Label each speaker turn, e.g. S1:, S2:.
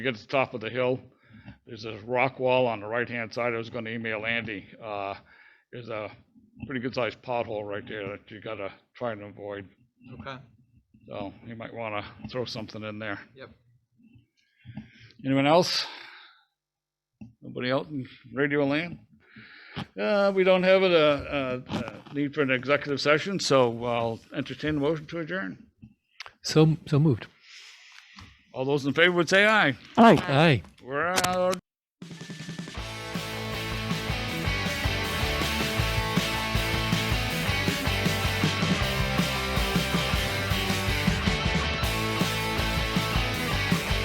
S1: you get to the top of the hill, there's this rock wall on the right-hand side. I was gonna email Andy. Uh, there's a pretty good-sized pothole right there that you gotta try and avoid.
S2: Okay,
S1: So you might wanna throw something in there.
S2: Yep.
S1: Anyone else? Nobody else in radio land? Uh, we don't have a, a, a need for an executive session, so I'll entertain a motion to adjourn.
S3: So, so moved.
S1: All those in favor would say aye.
S3: Aye.
S1: We're out of